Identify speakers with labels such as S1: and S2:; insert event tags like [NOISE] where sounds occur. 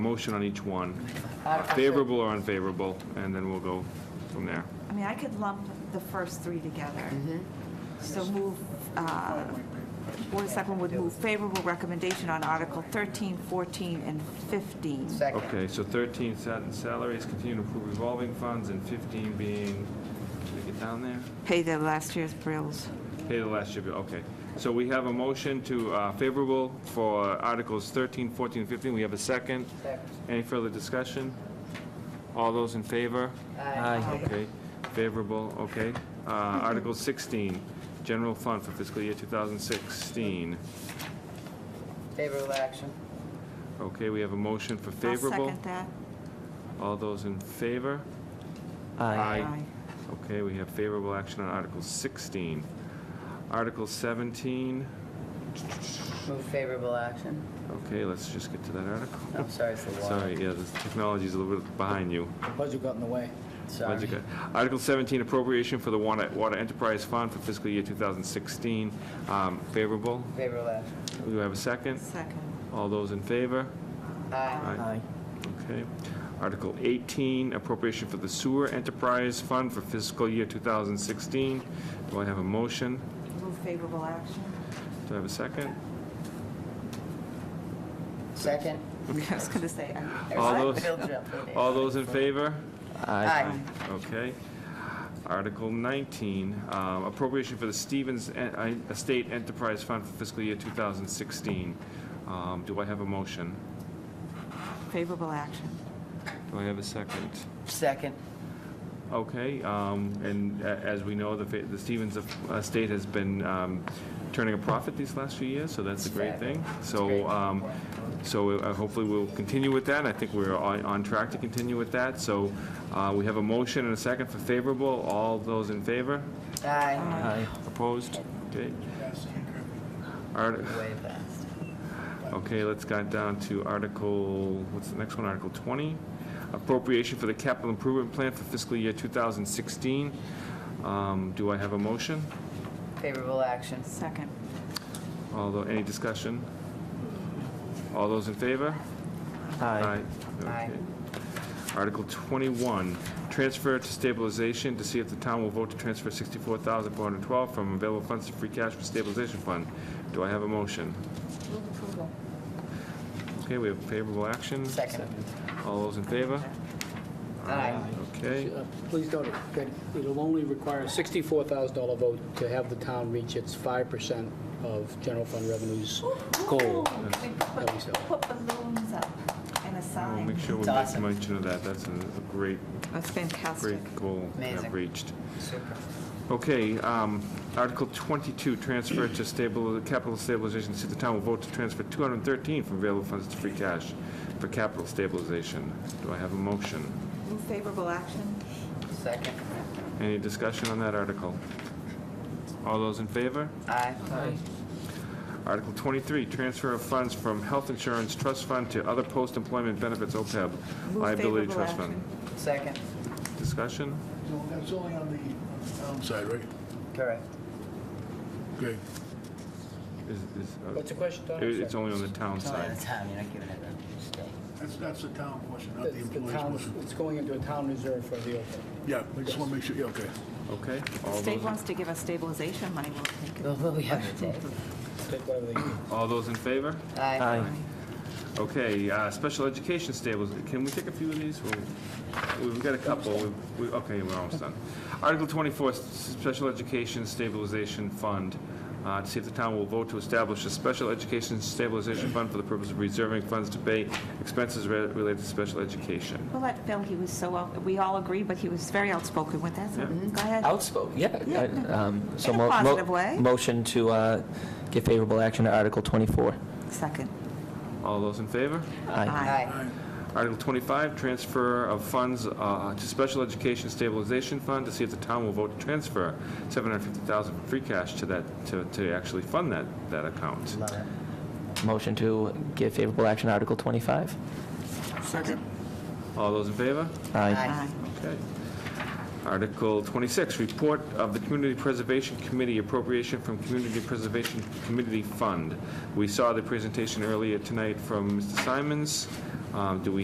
S1: Motion on each one,
S2: I- I-
S1: favorable or unfavorable, and then we'll go from there.
S3: I mean, I could lump the first three together. So move, uh, Board of Selectmen would move favorable recommendation on Article 13, 14, and 15.
S2: Second.
S1: Okay, so 13, sal- salaries, continue to approve revolving funds, and 15 being, did we get down there?
S3: Pay the last year's bills.
S1: Pay the last year, bill, okay. So we have a motion to uh, favorable for Articles 13, 14, and 15. We have a second.
S2: Second.
S1: Any further discussion? All those in favor?
S2: Aye.
S1: Okay, favorable, okay. Uh, Article 16, general fund for fiscal year 2016.
S2: Favorable action.
S1: Okay, we have a motion for
S3: I'll
S1: favorable.
S3: second that.
S1: All those in favor?
S3: Aye.
S1: Okay, we have favorable action on Article 16. Article 17,
S2: Move favorable action.
S1: okay, let's just get to that article.
S2: I'm sorry, it's the law.
S1: Sorry, yeah, the technology's a little bit behind you.
S4: Budget got in the way.
S2: Sorry.
S1: Budget cut. Article 17, appropriation for the Water Water Enterprise Fund for fiscal year 2016, Um, favorable.
S2: Favorable action.
S1: Do we have a second?
S3: Second.
S1: All those in favor?
S2: Aye.
S1: Aye. Okay. Article 18, appropriation for the Sewer Enterprise Fund for fiscal year 2016. Do I have a motion?
S3: Move favorable action. [LAUGHS]
S1: Do I have a second?
S2: Second.
S3: I was going to say, uh, aye.
S1: All those-
S2: Bill jumped in.
S1: All those in favor?
S2: Aye.
S1: Okay. Article 19, um, appropriation for the Stevens En- I- Estate Enterprise Fund for fiscal year 2016. Um, Do I have a motion?
S3: favorable action.
S1: Do I have a second?
S2: Second.
S1: Okay, um, and a- as we know, the fa- the Stevens of- Estate has been um, turning a profit these last few years, so that's a great thing. So, um, so uh, hopefully we'll continue with that, I think we're on on track to continue with that. So uh, we have a motion and a second for favorable, all those in favor?
S2: Aye.
S1: Opposed? Okay. Art-
S2: Way fast.
S1: Okay, let's go down to Article, what's the next one, Article 20? Appropriation for the capital improvement plan for fiscal year 2016. Um, Do I have a motion?
S2: Favorable action.
S3: Second.
S1: Although, any discussion? All those in favor? Aye.
S2: Aye.
S1: Okay. Article 21, transfer to stabilization to see if the town will vote to transfer 64412 from available funds to free cash for stabilization fund. Do I have a motion?
S2: Move approval.
S1: Okay, we have favorable action.
S2: Second.
S1: All those in favor?
S2: Aye.
S1: Okay.
S4: Uh, Please note that it'll only require a $64,000 vote to have the town reach its 5% of general fund revenues goal.
S3: We
S4: That we said.
S3: Put put balloons up and a
S1: We'll
S3: sign.
S1: make sure we
S2: It's
S1: make
S2: awesome.
S1: mention of that. That's a a great,
S3: That's fantastic.
S1: great goal to have
S2: Amazing.
S1: reached.
S2: Super.
S1: Okay, um, Article 22, transfer to stable, capital stabilization. See, the town will vote to transfer 213 from available funds to free cash for capital stabilization. Do I have a motion?
S3: Move favorable action.
S2: Second.
S1: Any discussion on that article? All those in favor?
S2: Aye.
S1: Article 23, transfer of funds from Health Insurance Trust Fund to other post-employment benefits OPEB
S3: Move
S1: liability
S3: favorable
S1: trust fund.
S3: action.
S2: Second.
S1: Discussion?
S5: No, that's only on the on the um, town side, right?
S2: Correct.
S5: Great.
S1: Is- is- uh,
S4: What's the question, Don?
S1: it- It's only on the town
S2: It's only
S1: side.
S2: the time, you're not giving it a stay.
S5: That's, that's the town portion, not the
S4: It's the
S5: employees
S4: town,
S5: portion.
S4: it's going into a town reserve for the open.
S5: Yeah, I just want to make sure, yeah, okay.
S1: Okay.
S3: The
S1: All
S3: state
S1: those,
S3: wants to give us stabilization money. We'll take it.
S2: Well, what we have to take.
S4: Take whatever they need.
S1: all those in favor?
S2: Aye.
S1: Okay, uh, special education stables, can we take a few of these? We'll- We've got a couple, We've- we, okay, we're almost done. Article 24, s- Special Education Stabilization Fund, uh, to see if the town will vote to establish a special education stabilization fund for the purpose of reserving funds to pay expenses re- related to special education.
S3: We'll let Phil, he was so, out- we all agree, but he was very outspoken with that, so go ahead.
S6: Outspoken, yeah.
S3: Yeah.
S6: I- um, so
S3: In a
S6: mo- mo-
S3: positive way.
S6: Motion to uh, give favorable action to Article 24.
S3: Second.
S1: All those in favor?
S6: Aye.
S2: Aye.
S1: Article 25, transfer of funds uh, to Special Education Stabilization Fund to see if the town will vote to transfer 750,000 from free cash to that, to to actually fund that, that account.
S2: Love it.
S6: Motion to give favorable action to Article 25.
S3: Second.
S1: All those in favor?
S2: Aye.
S3: Aye.
S1: Okay. Article 26, report of the Community Preservation Committee appropriation from Community Preservation Committee Fund. We saw the presentation earlier tonight from Mr. Simons. Um, Do we